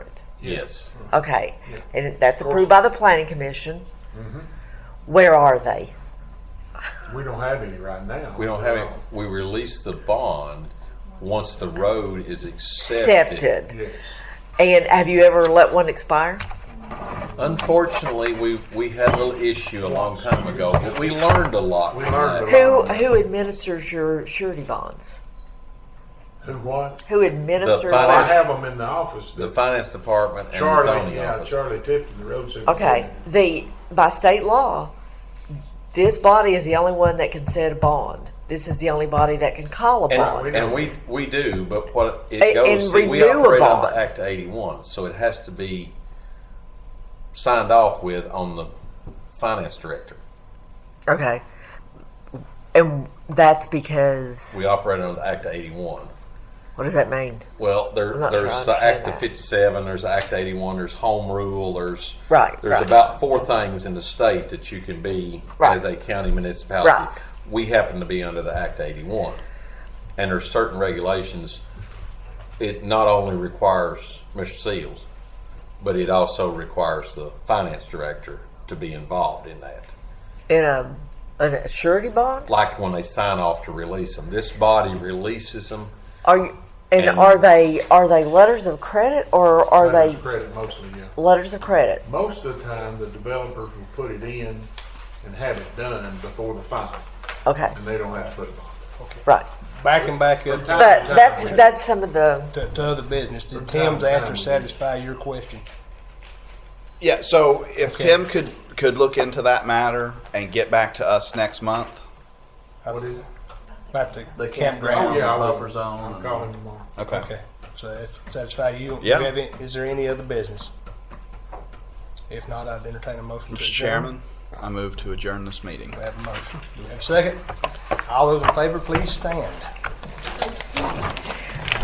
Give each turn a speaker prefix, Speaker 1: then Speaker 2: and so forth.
Speaker 1: Yes.
Speaker 2: Okay, and that's approved by the planning commission. Where are they?
Speaker 3: We don't have any right now.
Speaker 1: We don't have it, we release the bond once the road is accepted.
Speaker 2: Accepted.
Speaker 3: Yes.
Speaker 2: And have you ever let one expire?
Speaker 1: Unfortunately, we, we had a little issue a long time ago, but we learned a lot
Speaker 3: We
Speaker 1: from
Speaker 3: learned
Speaker 1: that.
Speaker 3: a lot.
Speaker 2: Who, who administers your surety bonds?
Speaker 3: Who what?
Speaker 2: Who administers?
Speaker 3: Well, I
Speaker 1: finance-
Speaker 3: have them in the office.
Speaker 1: The finance department and the
Speaker 3: Charlie,
Speaker 1: zoning
Speaker 3: yeah,
Speaker 1: office.
Speaker 3: Charlie Tipton, the road superintendent.
Speaker 2: Okay, the, by state law, this body is the only one that can set a bond. This is the only body that can call a bond.
Speaker 1: And, and we, we do, but what
Speaker 2: A-
Speaker 1: it goes,
Speaker 2: and
Speaker 1: see, we
Speaker 2: renew a
Speaker 1: operate under
Speaker 2: bond.
Speaker 1: Act eighty-one, so it has to be signed off with on the finance director.
Speaker 2: Okay. And that's because,
Speaker 1: We operate under Act eighty-one.
Speaker 2: what does that mean?
Speaker 1: Well, there,
Speaker 2: I'm not
Speaker 1: there's
Speaker 2: sure I
Speaker 1: the Act
Speaker 2: understand
Speaker 1: of
Speaker 2: that.
Speaker 1: 57, there's the Act 81, there's home rule, there's
Speaker 2: Right,
Speaker 1: there's
Speaker 2: right.
Speaker 1: about four things in the state that you can be
Speaker 2: Right.
Speaker 1: as a county municipality.
Speaker 2: Right.
Speaker 1: We happen to be under the Act 81, and there's certain regulations. It not only requires Mr. Seals, but it also requires the finance director to be involved in that.
Speaker 2: In a, in a surety bond?
Speaker 1: Like when they sign off to release them, this body releases them.
Speaker 2: Are you, and,
Speaker 1: And-
Speaker 2: are they are they letters of credit or are
Speaker 3: Letters
Speaker 2: they
Speaker 3: of Credit mostly, yeah.
Speaker 2: letters of credit?
Speaker 3: Most of the time, the developers will put it in and have it done before the final,
Speaker 2: Okay,
Speaker 3: and they don't have to put it on.
Speaker 2: right.
Speaker 4: Backing back up to,
Speaker 2: But that's that's some of the
Speaker 4: to, to other business, did
Speaker 3: time
Speaker 4: Tim's
Speaker 3: to time,
Speaker 4: answer
Speaker 3: we-
Speaker 4: satisfy your question?
Speaker 5: Yeah, so if
Speaker 4: Okay.
Speaker 5: Tim could, could look into that matter and get back to us next month.
Speaker 3: What is it?
Speaker 4: Uh, About the,
Speaker 5: The
Speaker 3: Oh,
Speaker 4: campground?
Speaker 3: yeah, I will.
Speaker 5: Buffer zone.
Speaker 3: I'll call him tomorrow.
Speaker 5: Okay.
Speaker 4: Okay, so that satisfy you?
Speaker 5: Yeah.
Speaker 4: Do you have any- Is there any other business? If not, I'd entertain a motion to
Speaker 5: Mr.
Speaker 4: adjourn.
Speaker 5: Chairman, I move to adjourn this meeting.
Speaker 4: We have a motion. Do we have a second? All those in favor, please stand.